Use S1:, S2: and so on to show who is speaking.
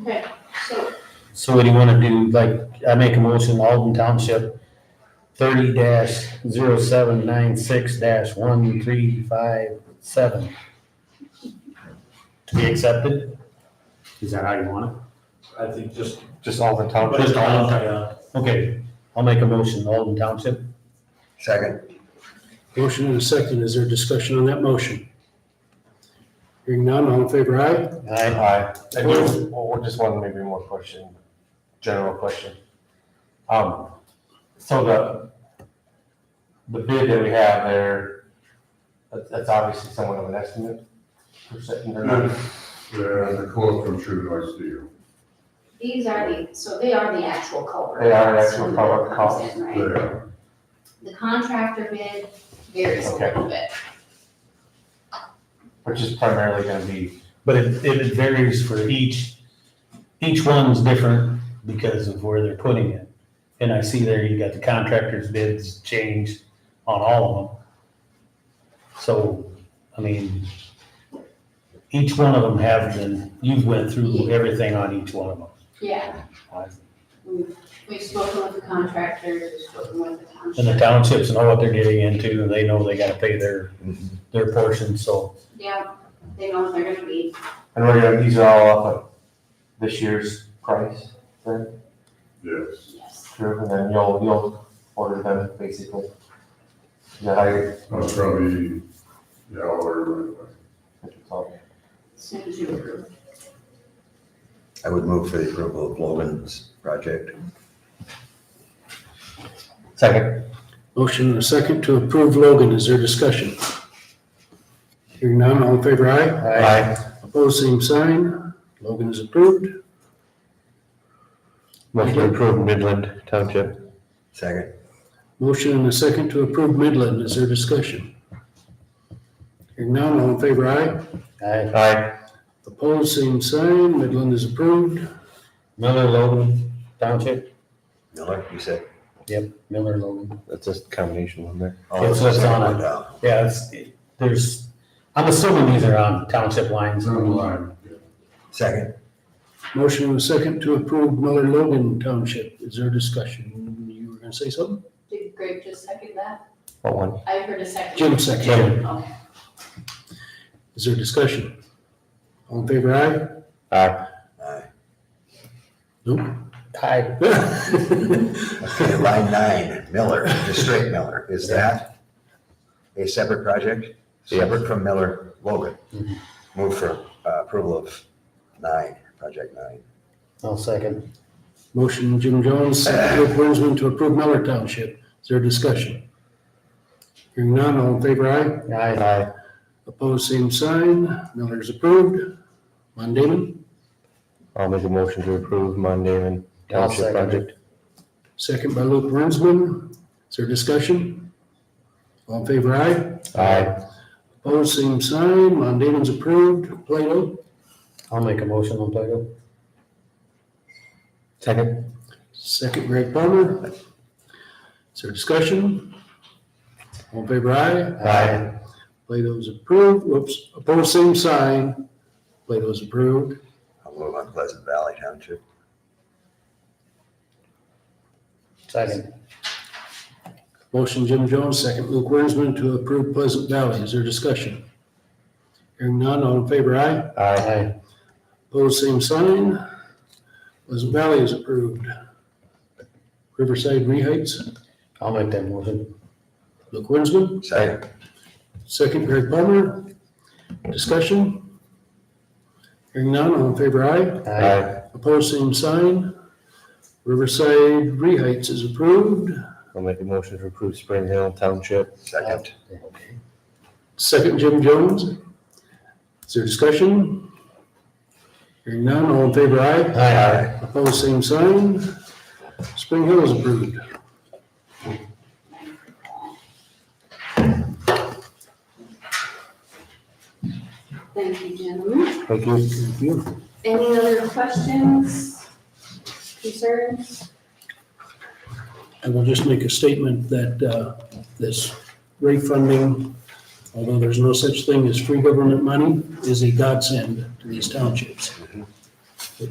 S1: Okay, so,
S2: So what do you wanna do, like, I make a motion, Alden Township thirty dash zero seven nine six dash one three five seven. To be accepted? Is that how you want
S3: I think just.
S2: it? Just Alden Township? Just Alden, okay, I'll make a motion, Alden Township.
S4: Second.
S5: Motion and a second. Is there discussion on that motion? Hearing none, all in favor, aye?
S2: Aye.
S6: Hi, I do, well, just one maybe more question, general question. Um, so the, the bid that we have there, that's, that's obviously somewhat of an estimate. per se, and they're not-
S3: Yeah, the quote from True North Steel,
S1: these are the, so they are the actual culvert.
S6: They are the
S1: costs
S6: actual
S1: when
S6: culvert
S1: comes
S6: costs.
S1: in, Right,
S3: there,
S1: the contractor bid varies a
S6: Okay.
S1: little bit.
S6: Which is primarily gonna be,
S2: But it, it varies for each, each one's different because of where they're putting it. And I see there you got the contractor's bids changed on all of them. So, I mean, each one of them have been, you've went through everything on each one of
S1: Yeah,
S2: them.
S1: we've, we've spoken with the contractors, we've spoken with the
S2: And the
S1: township.
S2: townships know what they're getting into, and they know they gotta pay their, their portion, so.
S1: Yeah, they know what they're gonna be.
S6: and we're gonna, these are all off of this year's price, then,
S3: yes.
S1: yes.
S6: true, and then you'll, you'll order them basically. Is that how you-
S3: I'll probably, yeah, I'll order it.
S6: what you call it?
S1: As soon as you approve.
S4: I would move for the approval of Logan's project.
S6: Second.
S5: Motion and a second to approve Logan. Is there discussion? Hearing none, all in favor, aye?
S6: Aye.
S5: Opposed, same sign. Logan is approved.
S2: Motion
S5: to
S2: approve Midland Township.
S4: Second.
S5: Motion and a second to approve Midland. Is there discussion? Hearing none, all in favor, aye?
S2: Aye.
S6: Aye.
S5: Opposed, same sign. Midland is approved.
S2: Miller Logan Township,
S4: Miller, you said?
S2: Miller Logan.
S6: That's a combination one there.
S4: Oh,
S2: It's what's on it.
S4: Yeah.
S2: Yeah, it's, there's, I'm assuming these are on township lines.
S3: It's on the line.
S4: Second.
S5: Motion and a second to approve Miller Logan Township. Is there discussion? You were gonna say something?
S1: Did Greg just second that?
S6: What one?
S1: I heard a second.
S5: Jim seconded.
S2: Jim.
S1: Okay.
S5: Is there discussion? All in favor, aye?
S6: Aye.
S4: Aye.
S2: Hi.
S4: Okay, line nine, Miller, just straight Miller. Is that a separate project?
S6: Yes.
S4: Separate from Miller Logan?
S2: Mhm.
S4: Move for uh, approval of nine, project nine.
S2: I'll second.
S5: Motion, Jim Jones, second, Rick Winsman, to approve Miller Township. Is there discussion? Hearing none, all in favor, aye?
S2: Aye.
S5: Opposed, same sign. Miller's approved. Von Damon,
S6: I'll make a motion to approve Mon Damon
S2: I'll second it.
S6: Township project.
S5: second by Luke Winsman. Is there discussion? All in favor, aye?
S6: Aye.
S5: Opposed, same sign. Von Damon's approved. Plato,
S2: I'll make a motion on Plato.
S6: Second.
S5: second Greg Palmer. Is there discussion? All in favor, aye?
S6: Aye.
S5: Plato's approved, whoops, opposed, same sign. Plato's approved.
S4: I'll move on Pleasant Valley Township.
S2: Second.
S5: Motion Jim Jones, second Luke Wernsman to approve Pleasant Valley. Is there discussion? Hearing none, all in favor, aye.
S6: Aye.
S2: Aye.
S5: Opposed, same sign. Pleasant Valley is approved. Riverside Reheights,
S2: I'll make that motion.
S5: Luke Wernsman,
S4: Second.
S5: second Greg Palmer. Discussion? Hearing none, all in favor, aye.
S2: Aye.
S5: Opposed, same sign. Riverside Reheights is approved.
S6: I'll make a motion to approve Spring Hill Township.
S4: Second.
S2: Okay.
S5: Second, Jim Jones. Is there discussion? Hearing none, all in favor, aye.
S2: Aye.
S5: Opposed, same sign. Spring Hill is approved.
S1: Thank you, gentlemen.
S6: Thank you.
S1: Any other questions, concerns?
S5: I will just make a statement that uh, this rate funding, although there's no such thing as free government money, is a godsend to these townships.